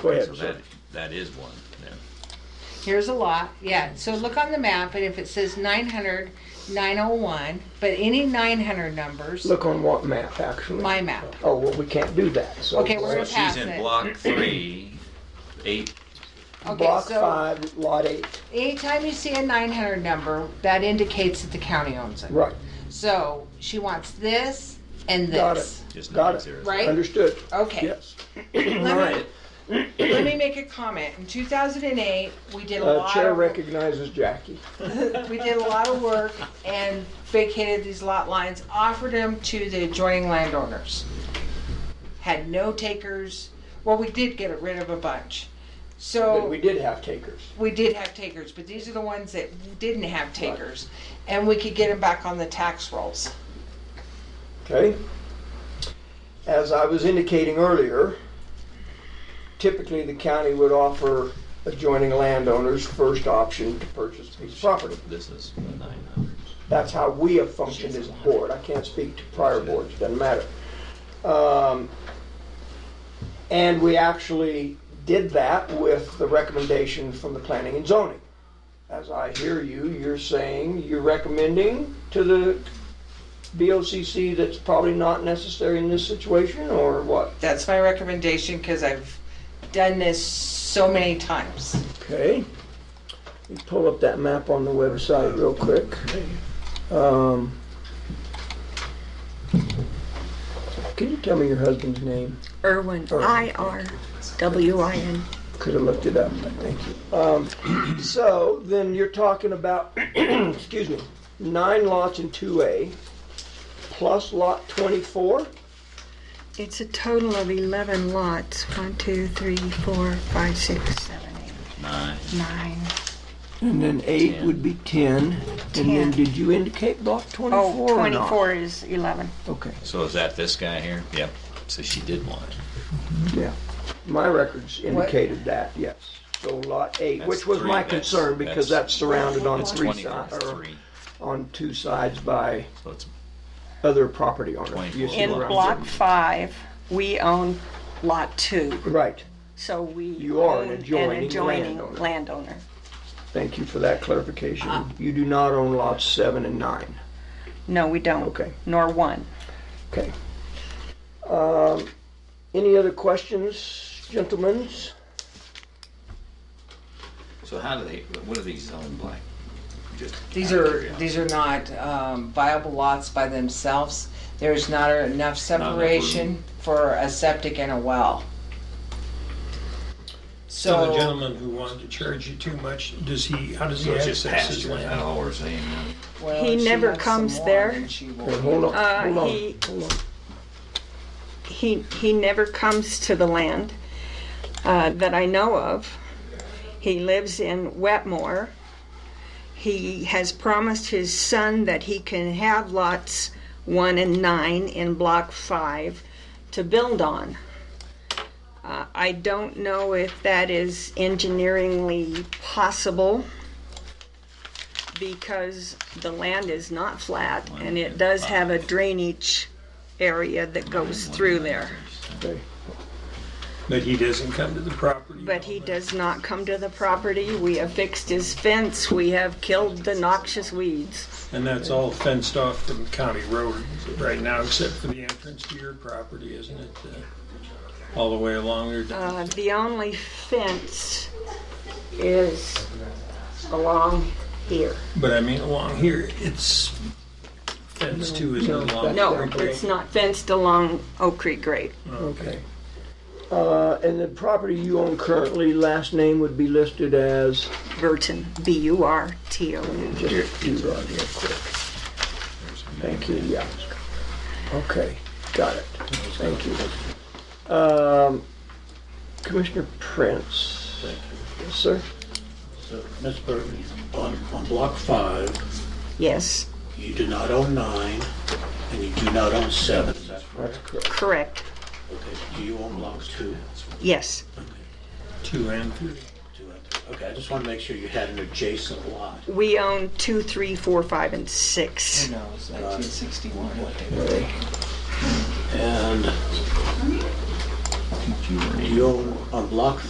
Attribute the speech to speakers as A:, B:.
A: Go
B: Okay,
A: ahead,
B: so
A: sir.
B: that, that is one, then.
C: Here's a lot, yeah, so look on the map, and if it says 900, 901, but any 900 numbers,
A: Look on what map, actually?
C: my map.
A: Oh, well, we can't do that, so.
C: Okay, we're
B: So
C: gonna pass
B: she's in
C: it.
B: block three, eight,
C: Okay,
A: Block
C: so
A: five, lot eight,
C: anytime you see a 900 number, that indicates that the county owns it.
A: right,
C: So she wants this and
A: Got
C: this.
B: just
A: Got
B: nine
A: it.
B: zeros.
C: Right?
A: understood,
C: Okay.
A: yes.
C: Let me,
B: Alright,
C: let me make a comment. In 2008, we did a
A: Uh,
C: lot
A: Chair
C: of
A: recognizes Jackie.
C: we did a lot of work and vacated these lot lines, offered them to the adjoining landowners. Had no takers. Well, we did get rid of a bunch.
A: But
C: So
A: we did have takers.
C: we did have takers, but these are the ones that didn't have takers. And we could get them back on the tax rolls.
A: Okay? As I was indicating earlier, typically the county would offer adjoining landowners first option to purchase a piece of property.
B: this is nine hundred.
A: That's how we have functioned as a board. I can't speak to prior boards, doesn't matter. Um, And we actually did that with the recommendation from the planning and zoning. As I hear you, you're saying, you're recommending to the BOCC that's probably not necessary in this situation, or what?
C: That's my recommendation because I've done this so many times.
A: Okay. You pull up that map on the website real quick. Um, Can you tell me your husband's name?
D: Irwin,
A: Irwin.
D: I R W I N.
A: Could have looked it up, but thank you. Um, So then you're talking about, excuse me, nine lots in 2A plus lot 24?
D: It's a total of 11 lots. One, two, three, four, five, six, seven, eight,
B: Nine,
D: nine.
A: And then eight would be 10. And then
D: Ten.
A: did you indicate block 24
D: Oh,
A: or not?
D: 24 is 11.
A: Okay.
B: so is that this guy here? Yep, so she did one.
A: Yeah, my records indicated that, yes. So lot eight,
B: That's
A: which was
B: three,
A: my
B: that's-
A: concern because that's
B: that's-
A: surrounded on
B: It's
A: three
B: twenty-four,
A: sides, or
B: three,
A: on two sides by
B: so it's
A: other property owners. You see
D: In
B: Eleven.
A: where I'm
D: Block
A: getting-
D: 5, we own Lot 2,
A: Right,
D: so we
A: You are an
D: own
A: adjoining
D: adjoining
A: landowner.
D: landowner.
A: thank you for that
D: Uh-huh.
A: clarification. You do not own lots seven and nine,
D: No, we don't.
A: Okay.
D: Nor 1.
A: okay. Um, Any other questions, gentlemen?
B: So how do they, what are these zoned like? Just
C: These
B: out of
C: are,
B: curiosity.
C: these are not um, viable lots by themselves. There's not enough
B: enough room.
C: separation for a septic and a well.
E: So the
C: So,
E: gentleman who wanted to charge you too much, does he, how does he
B: So it's just
E: access his
B: pasture, is that
E: land?
B: all we're saying? now?
C: well,
D: He
C: she
D: never
C: wants
D: comes
C: some
D: there.
C: lawn and she will-
A: Hey, Hold on,
D: Uh,
A: hold on,
D: he-
A: hold on.
D: He, he never comes to the land uh, that I know of. He lives in Wetmore. He has promised his son that he can have lots one and nine in block five to build on. Uh, I don't know if that is engineeringly possible because the land is not flat and it does have a drainage area that goes through there.
E: But he doesn't come to the property.
D: But he does not come to the property. We have fixed his fence. We have killed the noxious weeds.
E: And that's all fenced off from County Road right now, except for the entrance to your property, isn't it? Uh, All the way along there.
D: Uh, the only fence is along here.
E: But I mean, along here, it's fenced too, isn't it? along
D: No,
E: Creek Way?
D: it's not fenced along Oak Creek Grade.
A: Okay. Uh, And the property you own currently, last name would be listed as?
D: Burton, B U R T O N.
A: Just do that real quick. Thank you, yeah. Okay, got it. Thank you. Um, Commissioner Prince? Thank you. Yes, sir?
F: So, Ms. Burton, on, on block five,
D: Yes,
F: you do not own nine, and you do not own seven, is that correct?
A: correct.
D: correct.
F: Okay, do you own block two?
D: Yes,
E: Two and three.
F: Two and three. Okay, I just want to make sure you had an adjacent lot.
D: we own two, three, four, five, and six.
C: No, it's 1961.
F: And you own, on block